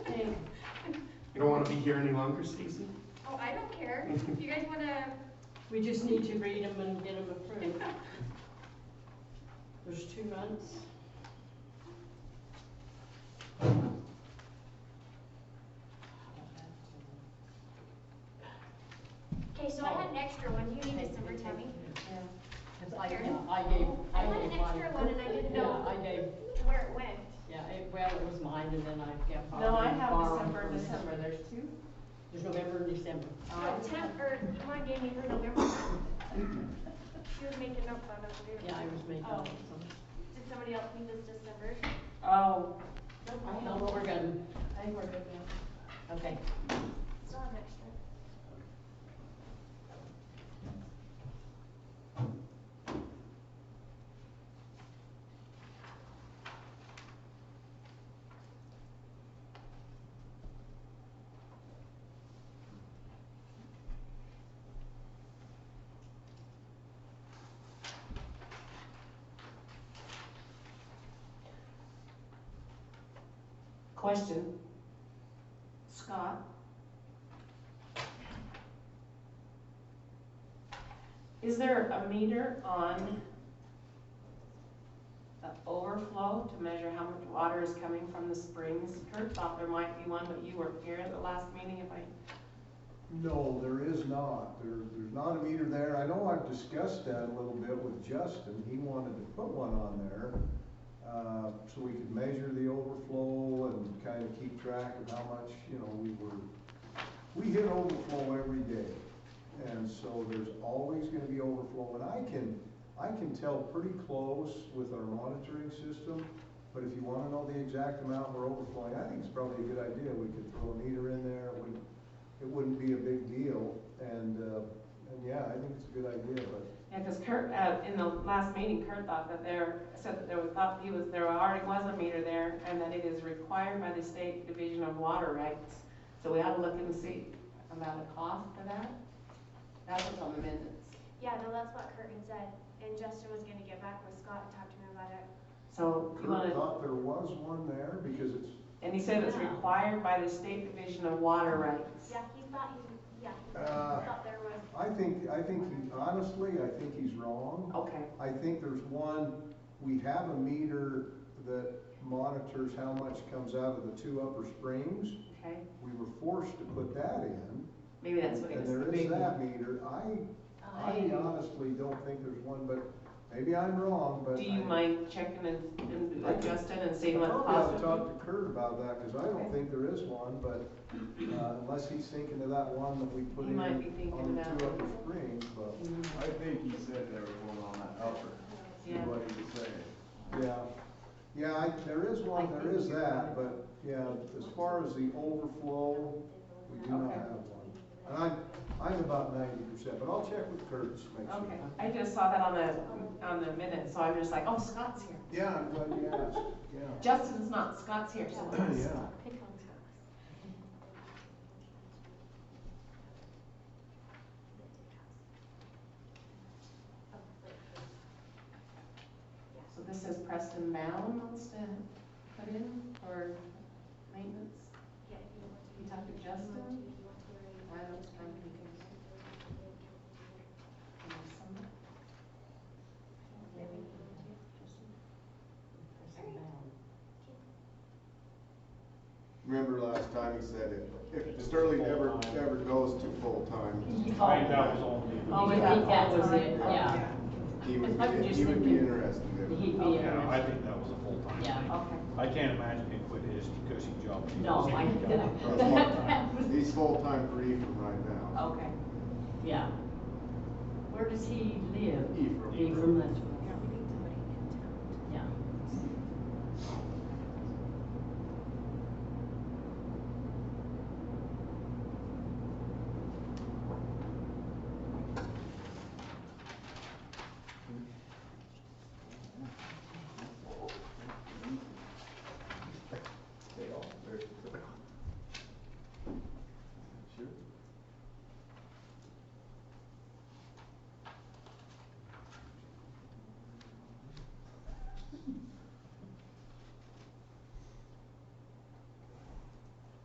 want to be here any longer, Stacy? Oh, I don't care. If you guys wanna, We just need to read them and get them approved. There's two months. okay, so I had an extra one. Do you need this number, Tammy? It's like, Here. yeah, I gave, I I want gave an mine. extra one and I didn't know. Yeah, I gave, Where it went. yeah, it, well, it was mine and then I got. No, I borrowed- have borrowed December, from- December, there's two. There's November and December. Oh, Tam, or, Mom gave me her November. She was making up fun of me. Yeah, I was making. Oh, some- did somebody else need this December? Oh, I don't know, we're good. I think we're good now. Okay. Still have an extra. Question. Scott? Is there a meter on the overflow to measure how much water is coming from the springs? Kurt thought there might be one, but you weren't here at the last meeting, if I, No, there is not. There, there's not a meter there. I know I've discussed that a little bit with Justin. He wanted to put one on there, uh, so we could measure the overflow and kind of keep track of how much, you know, we were, we hit overflow every day. And so there's always gonna be overflow, and I can, I can tell pretty close with our monitoring system, but if you wanna know the exact amount we're overflowing, I think it's probably a good idea. We could throw a meter in there, it wouldn't it wouldn't be a big deal, and, uh, and yeah, I think it's a good idea, but yeah, because Kurt, uh, in the last meeting, Kurt thought that there, said that there was, thought he was, there already was a meter there, and that it is required by the State Division of Water Rights. So we ought to look and see about a cost for that. That was on the minutes. Yeah, no, that's what Kurt had said, and Justin was gonna get back with Scott and talk to him about it. So you Kurt wanna, thought there was one there, because it's, and he said it's required by the State Division of Water Rights. Yeah, he thought he, yeah, he Uh. thought there was, I think, I think, he- honestly, I think he's wrong. Okay, I think there's one, we have a meter that monitors how much comes out of the two upper springs. okay, We were forced to put that in, maybe that's what it and was. the there is big that meter. I, uh, I honestly don't think there's one, but maybe I'm wrong, but. Do you I- mind checking and- and I can- adjusting and I seeing what the probably ought cost to would talk to Kurt about that, because I don't think there is one, but uh, unless he's thinking of that one that we put He in might be thinking on the about two it. upper springs, but, be? Mm-hmm. I think he said there was one on that upper, is Yeah. what he was saying. yeah. Yeah, I, there is one, I there think is you're that, right. but, yeah, as far as the overflow, we do not Okay. have one. And I'm, I'm about ninety percent, but I'll check with Kurt to make sure. Okay, I just saw that on the, on the minutes, so I'm just like, oh, Scott's here. Yeah, I'm glad you asked, yeah. Justin's not, Scott's here, so. Yeah, pick on Scott. So this is Preston Mound wants to put in for maintenance? Yeah, if you want to. You talked to if you want Justin? to, if you want to, or you- I don't think we can- Or some- Maybe you want to. Person bound. Remember last time he said if, if Sterling ever, ever goes to full-time, Oh, I think that was it, yeah. he would, I'm be- just he would be thinking- interested in it. He'd be Yeah, I interested. think that was a full-time Yeah. thing. Okay. I can't imagine he quit his coaching job. No, I, That's full-time. He's full-time for Ephraim right now. Okay. yeah. Where does he live? Ephraim. Ephraim, that's right.